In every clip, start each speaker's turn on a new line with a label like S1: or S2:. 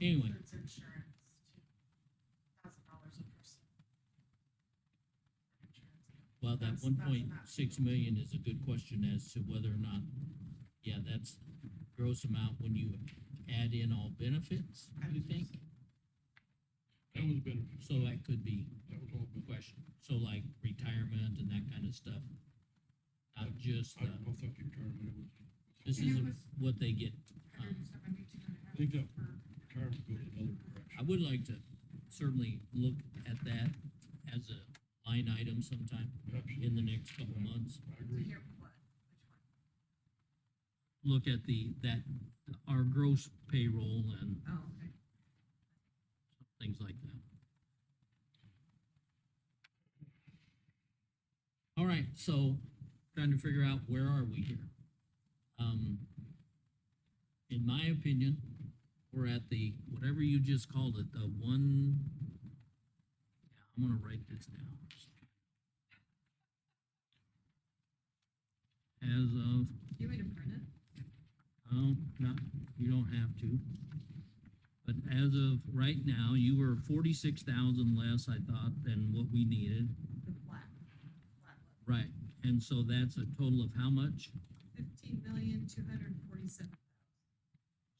S1: Anyway.
S2: Includes insurance, too. Thousand dollars a person. Insurance.
S1: Well, that
S2: That's-
S1: one
S2: that's
S1: point
S2: not-
S1: six million is a good question as to whether or not, yeah, that's gross amount when you add in all benefits,
S2: I
S1: you
S2: would
S1: think?
S3: That was better,
S1: So that could be
S3: that was all
S1: a
S3: better.
S1: question, so like retirement and that kind of stuff. Not just,
S3: I
S1: uh,
S3: don't know if that retirement, it was,
S1: this
S2: And it
S1: is
S2: was-
S1: what they get.
S3: uh,
S2: Hundred and seventy-two and a half
S3: I think that-
S2: per-
S3: retirement goes another direction.
S1: I would like to certainly look at that as a line item sometime in the next couple of months.
S3: I agree.
S2: Here, what? Which one?
S1: Look at the, that, our gross payroll and
S2: Oh, okay.
S1: things like that. All right, so trying to figure out where are we here? Um, in my opinion, we're at the, whatever you just called it, the one, yeah, I'm gonna write this down. As of
S2: You want me to print it?
S1: Oh, not, you don't have to. But as of right now, you were forty-six thousand less, I thought, than what we needed.
S2: The flat. flat look.
S1: Right. And so that's a total of how much?
S2: Fifteen million, two hundred and forty-seven.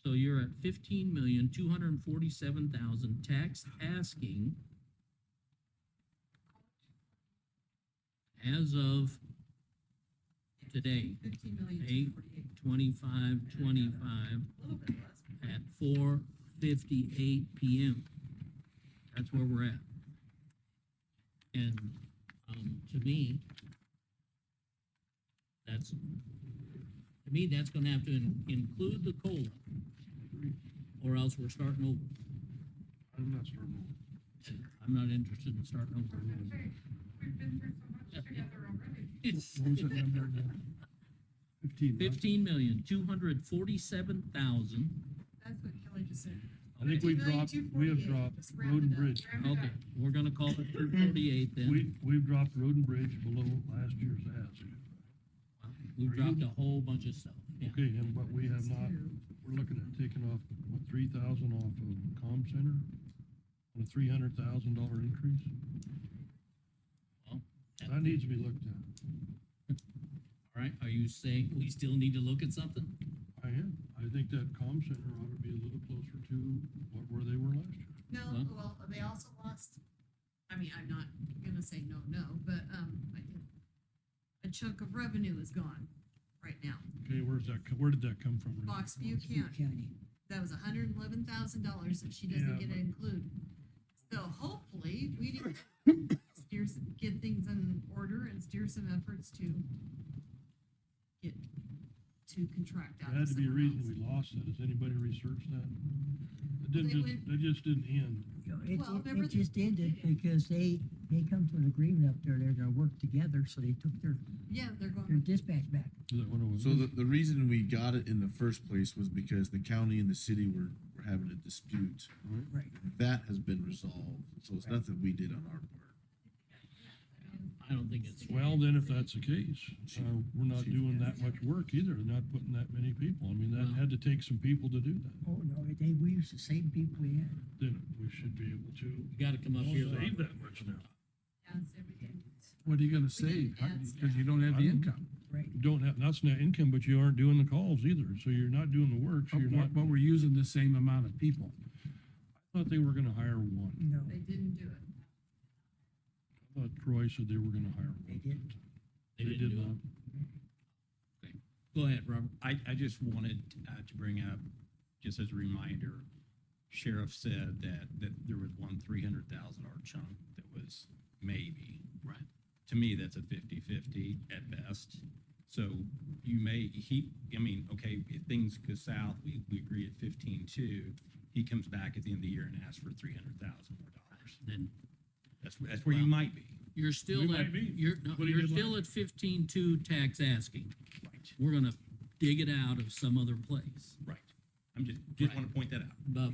S1: So you're at fifteen million, two hundred and forty-seven thousand tax asking as of today,
S2: Fifteen million, two
S1: Eight.
S2: forty-eight.
S1: twenty-five, twenty-five,
S2: A little bit less. but
S1: at four fifty-eight PM. That's where we're at. And, um, to me, that's, to me, that's gonna have to in- include the COLA. Or else we're starting over.
S3: I'm not certain.
S1: And I'm not interested in starting over.
S2: we're okay. We've been through so much together already.
S1: It's
S3: What was that number again? Fifteen, right?
S1: fifteen million, two hundred forty-seven thousand.
S2: That's what Kelly just said.
S3: I think we've
S2: 15,248.
S3: dropped, we have dropped
S2: Just round
S3: road and
S2: it up.
S3: bridge.
S2: Round it
S1: Okay,
S2: up.
S1: we're gonna call it two forty-eight then.
S3: We, we've dropped road and bridge below last year's ask.
S1: We've dropped a whole bunch of stuff, yeah.
S3: Okay, and but we have not, we're looking at taking off, what, three thousand off of com center? On a three hundred thousand dollar increase?
S1: Well, that-
S3: That needs to be looked at.
S1: All right, are you saying we still need to look at something?
S3: I am. I think that com center ought to be a little closer to what, where they were last year.
S2: No,
S1: Well-
S2: well, they also lost, I mean, I'm not gonna say no, no, but, um, I did. A chunk of revenue is gone right now.
S3: Okay, where's that, co- where did that come from? Randy?
S2: Foxview County, that was hundred and eleven thousand dollars that she
S3: Yeah,
S2: doesn't get to
S3: but-
S2: include. So hopefully, we did steer, some- get things in order and steer some efforts to get, to contract out.
S3: There had to be a
S2: someone
S3: reason
S2: else.
S3: we lost that. Has anybody researched that? It
S2: Well,
S3: didn't
S2: they
S3: just,
S2: went-
S3: it just didn't end.
S4: You know, It,
S2: Well,
S4: it-
S2: remember
S4: it
S2: the-
S4: just ended because they, they come to an agreement up there, they're gonna work together, so they took their,
S2: Yeah, they're
S4: their
S2: going,
S4: dispatch back.
S3: Is that what it was?
S5: So the, the reason we got it in the first place was because the county and the city were, were having a dispute.
S4: Right.
S5: That has been resolved, so it's nothing we did on our part.
S1: I don't think it's,
S3: Well, then if that's the case, uh, we're not
S5: Chief.
S3: doing that much work either, not putting that many people. I mean,
S1: Well-
S3: that had to take some people to do that.
S4: Oh, no, they, we used the same people we had.
S3: Then we should be able to
S1: you gotta come up here.
S3: save
S1: Robert.
S3: that much now. Hmm.
S2: yeah, so we can-
S6: What are you gonna
S2: We didn't
S6: save? How-
S2: ask
S6: Cause you don't have the
S3: I don't-
S6: income.
S4: Right.
S3: You don't have, that's net income, but you aren't doing the calls either, so you're not doing the work, so
S6: But
S3: you're not,
S6: we're- but we're using the same amount of people.
S3: I thought they were gonna hire one.
S4: No,
S2: they didn't do it.
S3: I thought Troy said they were gonna hire
S4: they
S3: one.
S4: didn't.
S1: They didn't do it. Go ahead, Robert.
S7: I, I just wanted uh, to bring up, just as a reminder, Sheriff said that, that there was one three hundred thousand dollar chunk that was maybe.
S1: Right.
S7: To me, that's a fifty-fifty at best. So you may, he, I mean, okay, if things go south, we, we agree at fifteen-two. He comes back at the end of the year and asks for three hundred thousand more dollars.
S1: Then
S7: That's, where- that's where you might be.
S1: you're
S3: We
S1: still
S3: might
S1: at,
S3: be.
S1: you're, no,
S3: What he
S1: you're
S3: did
S1: still at fifteen-two tax asking.
S7: Right.
S1: We're gonna dig it out of some other place.
S7: Right. I'm just, just
S1: Right.
S7: want to point that out.
S1: But